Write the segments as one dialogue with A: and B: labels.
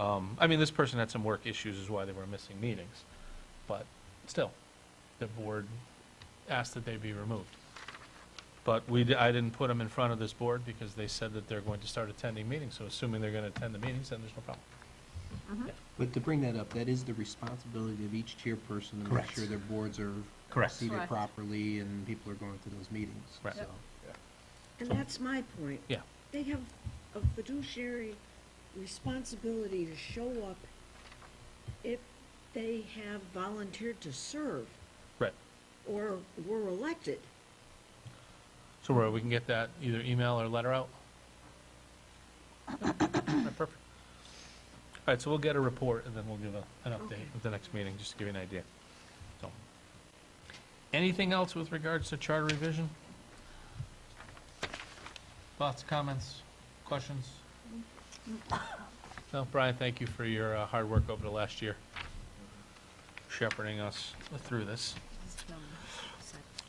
A: Um, I mean, this person had some work issues is why they were missing meetings, but still, the board asked that they be removed. But we, di- I didn't put them in front of this board because they said that they're going to start attending meetings, so assuming they're gonna attend the meetings, then there's no problem.
B: But to bring that up, that is the responsibility of each chairperson to make
C: Correct.
B: sure their boards are
C: Correct.
B: seated
D: Correct.
B: properly and people are going to those meetings.
A: Right.
B: So,
E: And that's my point.
A: Yeah.
E: They have a fiduciary responsibility to show up if they have volunteered to serve
A: Right.
E: or were elected.
A: So Roy, we can get that either email or letter out? Alright, Perfect. All right, so we'll get a report and then we'll give a, an update at the next meeting, just to give you an idea. So, Anything else with regards to charter revision? Thoughts, comments, questions? No, Brian, thank you for your uh, hard work over the last year, shepherding us through this.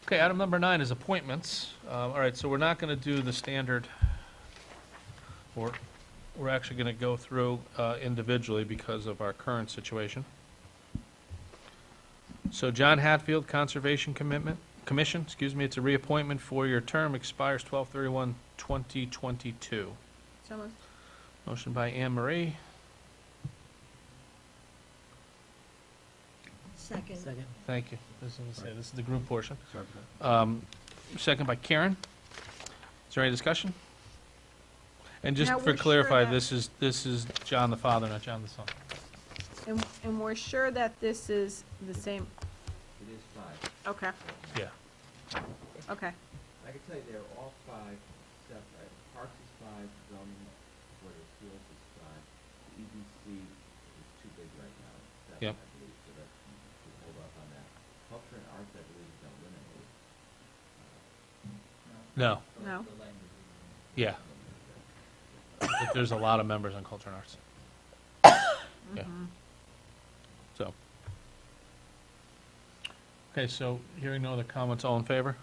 A: Okay, item number nine is appointments. Um, All right, so we're not going to do the standard, or, we're actually going to go through uh, individually because of our current situation. So John Hatfield, Conservation Commitment, Commission, excuse me, it's a reappointment for your term, expires 12/31/2022.
D: So moved.
A: Motion by Anne Marie,
E: Second.
A: thank you. This is, this is the group portion.
B: sorry for that.
A: Um, Second by Karen. Is there any discussion? And just
D: Now,
A: for
D: we're sure
A: clarify,
D: that-
A: this is, this is John the father, not John the son.
D: And, and we're sure that this is the same,
F: It is five.
D: okay,
A: Yeah.
D: okay.
F: I can tell you they're all five, except uh, Parks is five, zoning, Board of Appeals is five, EDC is too big right now. Seven,
A: Yep.
F: I believe, so that, we hold off on that. Culture and arts, I believe, is eliminated.
A: No,
D: No.
A: yeah. But There's a lot of members on Culture and Arts. Yeah.
D: Mm-hmm.
A: So. Okay, so hearing no other comments, all in favor?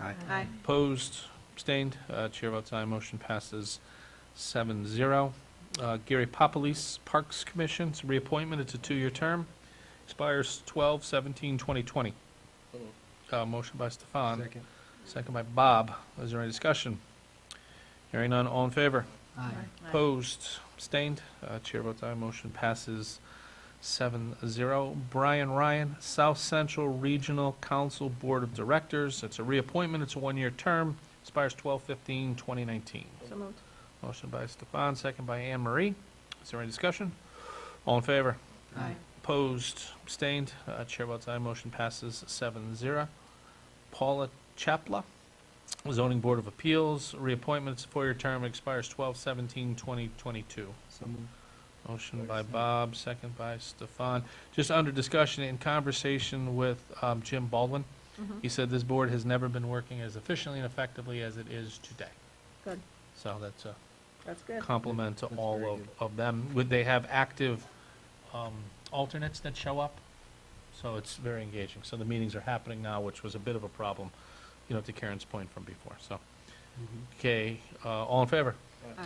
D: Aye.
A: Opposed, abstained, uh, chair votes aye, motion passes seven zero. Uh, Gary Papalis, Parks Commission, it's a reappointment, it's a two-year term, expires twelve seventeen twenty twenty. Uh, motion by Stefan. Second. Second by Bob, is there any discussion? Hearing none, all in favor? Opposed, abstained, uh, chair votes aye, motion passes seven zero. Brian Ryan, South Central Regional Council Board of Directors, it's a reappointment, it's a one-year term, expires twelve fifteen twenty nineteen.
D: So moved.
A: Motion by Stefan, second by Anne Marie. Is there any discussion? All in favor?
D: Aye.
A: Opposed, abstained, uh, chair votes aye, motion passes seven zero. Paula Chapla, zoning board of appeals, reappointments, four-year term, expires twelve seventeen twenty twenty-two.
B: So moved.
A: Motion by Bob, second by Stefan. Just under discussion in conversation with um, Jim Baldwin,
D: Mhm.
A: he said this board has never been working as efficiently and effectively as it is today.
D: Good,
A: So that's a
D: that's good.
A: compliment to
B: That's
A: all
B: very
A: of,
B: good.
A: of them. Would they have active um, alternates that show up? So it's very engaging. So the meetings are happening now, which was a bit of a problem, you know, to Karen's point from before, so. Okay, uh, all in favor?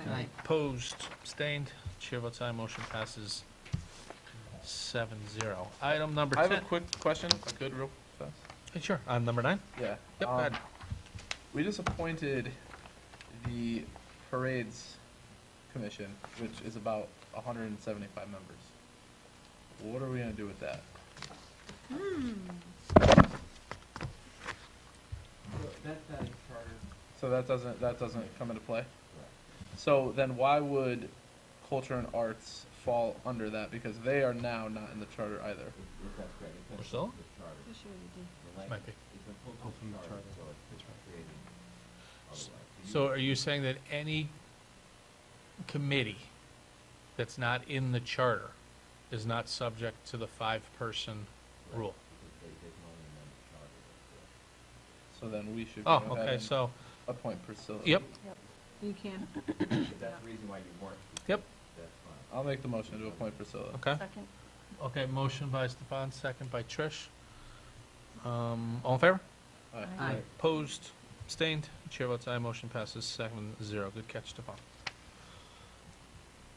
D: Aye.
A: Opposed, abstained, chair votes aye, motion passes seven zero. Item number
G: I
A: ten.
G: have a quick question, if I could, real fast.
A: Hey, Sure, item number nine?
G: Yeah.
A: Yep, go
G: um,
A: ahead.
G: We just appointed the parades commission, which is about hundred and seventy-five members. What are we gonna do with that?
F: So that's not in charter,
G: So that doesn't, that doesn't come into play?
F: correct?
G: So then why would culture and arts fall under that? Because they are now not in the charter either.
F: If, if that's correct. it's in
A: Priscilla?
F: The charter.
D: Yes, you already did.
F: The language-
A: Might be.
F: It's a full
B: from the
F: charter,
B: charter.
F: so it's creating otherwise. you-
A: So are you saying that any committee that's not in the charter is not subject to the five-person rule?
F: Because they, they can only amend the charter, that's correct.
G: So then we should.
A: Oh,
G: go ahead
A: okay,
G: and
A: so,
G: Appoint Priscilla.
A: yep,
D: You can.
F: If that's the reason why you weren't,
A: yep,
F: that's fine.
G: I'll make the motion to appoint Priscilla.
A: okay.
D: Second.
A: Okay, motion by Stefan, second by Trish. Um, all in favor?
G: Aye.
D: Aye.
A: Opposed, abstained, chair votes aye, motion passes seven zero. Good catch, Stefan.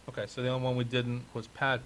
A: Okay, so the only one we didn't was Pat,